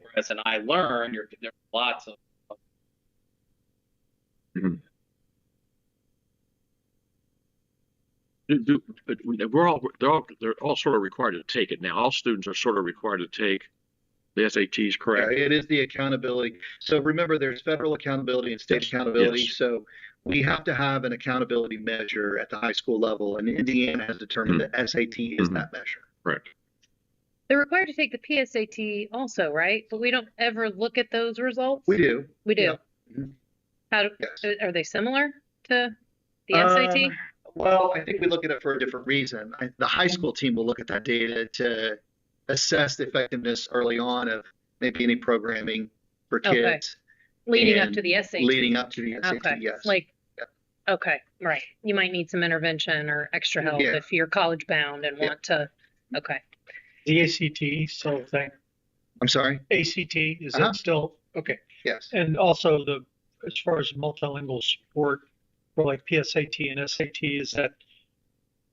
progress and I learn, you're, there's lots of. Do, do, but we- we're all, they're all, they're all sort of required to take it now. All students are sort of required to take the SATs, Yeah, correct? It is the accountability. So remember, there's federal accountability and state Yes, accountability. yes. So we have to have an accountability measure at the high school level, and Indiana has determined that SAT is Mhm. that measure. Correct. They're required to take the PSAT also, right? But we don't ever look at those results. We do, We do. yeah. Mhm. How do, yes. are they similar to the SAT? Um, well, I think we look at it for a different reason. I, the high school team will look at that data to assess the effectiveness early on of maybe any programming for Okay. kids Leading up and to the SAT. leading up to the SAT. Okay. Yes. Like, okay, right. You might need some intervention or extra help Yeah. if you're college bound and Yeah. want to, okay. The ACT still a thing. I'm sorry. ACT, is Uh-huh. that still, okay. Yes. And also the, as far as multilingual support for like PSAT and SAT, is that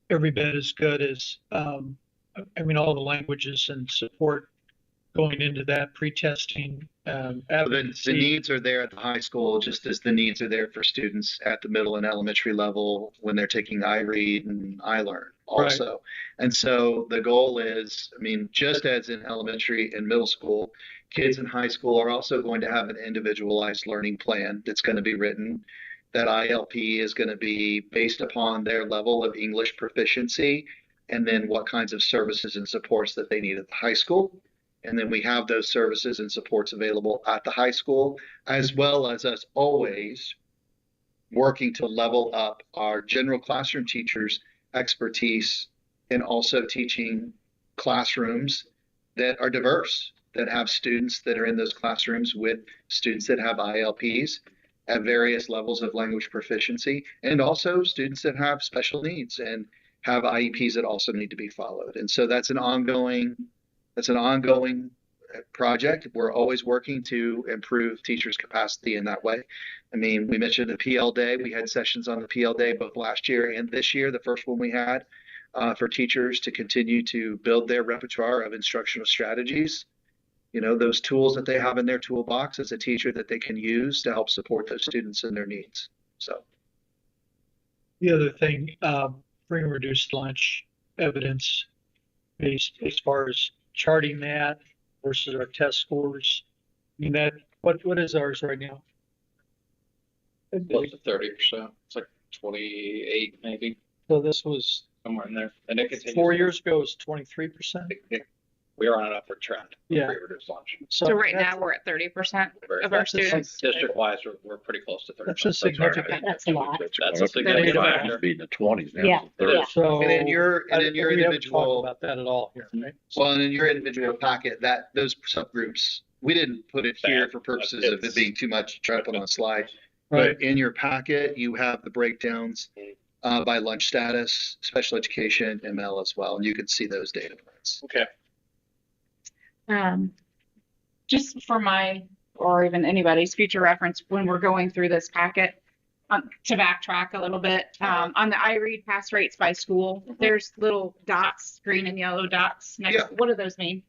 every bit as good as, um, I mean, all the languages and support going into that pre-testing, um, The, the advocacy. needs are there at the high school, just as the needs are there for students at the middle and elementary level when they're taking iRead and iLearn also. And so the goal is, I mean, just as in elementary and middle school, kids in high school are also going to have an individualized learning plan that's going to be written. That ILP is going to be based upon their level of English proficiency and then what kinds of services and supports that they need at the high school. And then we have those services and supports available at the high school, as well as us always working to level up our general classroom teachers' expertise in also teaching classrooms that are diverse, that have students that are in those classrooms with students that have ILPs at various levels of language proficiency, and also students that have special needs and have IEPs that also need to be followed. And so that's an ongoing that's an ongoing uh, project. We're always working to improve teachers' capacity in that way. I mean, we mentioned the PL Day. We had sessions on the PL Day both last year and this year, the first one we had uh, for teachers to continue to build their repertoire of instructional strategies. You know, those tools that they have in their toolbox as a teacher that they can use to help support those students and their needs. So, The other thing, um, bring reduced lunch evidence based as far as charting that versus our test scores. I mean, that, what, what is ours right now? Close to thirty percent, it's like twenty-eight maybe, So this was somewhere in there, and it continues. four years ago, it was twenty-three percent. We are on an upward trend. for Yeah. pre-reduced lunch. So right now, we're at thirty percent Very- of our That's the same- students. District-wise, we're, we're pretty close to thirty. That's a significant- That's a lot. That's a significant Yeah. factor. Be in the twenties now. Yeah, it's the 30s. yeah. So. and in your and Oh, I in didn't- your we haven't individual talked About that at all here, right? Well, and in your individual packet, that, those subgroups, we didn't put it here for purposes of it being too much to try to put on a slide. Right, But in your packet, you have the breakdowns uh, by lunch status, special education, ML as well, and you can see those data points. Okay. Um, just for my, or even anybody's future reference, when we're going through this packet, um, to backtrack a little bit, um, on the iRead pass rates by school, there's little dots, green and yellow dots Yeah. next, what do those mean?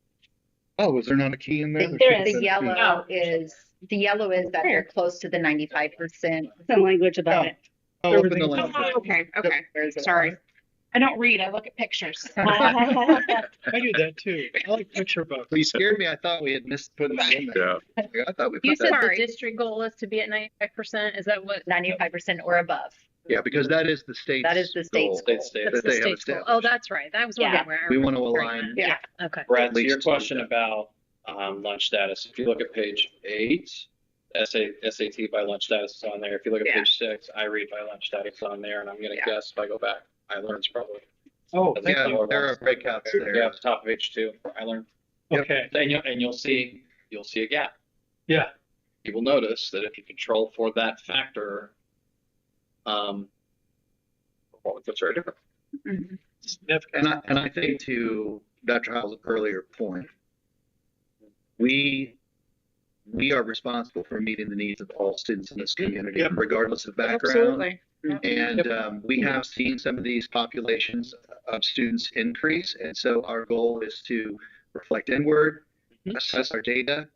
Oh, was there not a key in there? There is. should The have been a key. yellow is, the yellow is that they're close to the ninety-five percent. some language about it. Oh, up in the Everything's lounge. Oh, Okay, okay, Where's it? sorry. I don't read, I look at pictures. I do that too. I like picture books. You scared me. I thought we had missed putting that in there. Yeah. Like, I thought we You put said that, the Sorry. district goal is to be at ninety-five percent, is that what? Ninety-five percent or above. yeah, because that is the state's That is the state's goal. State standard. That's that the they have state's goal. Oh, established. that's right, that was one Yeah. where. I We want to remember align. that. Yeah, okay. Brad, to leads your to question that. about um, lunch status, if you look at page eight, SA, SAT by lunch status is on there. If you look at Yeah. page six, I read by lunch status is on there, and I'm gonna Yeah. guess if I go back, I learn's probably. Oh, thank Yeah, you. there are breakouts there. Yeah, top of page two, I learned, Okay, and you'll, and you'll see, you'll see a gap. yeah, You will notice that if you control for that factor, um, performance looks very different. Mm-hmm. Mhm. And significant. I, and I think to Dr. Howell's earlier point, we, we are responsible for meeting the needs of all students in this community, Mm-hmm. Yep. regardless of background. Absolutely. And Yep. um, we have seen some of these populations of students Mm-hmm. increase. And so our goal is to reflect inward, assess our data,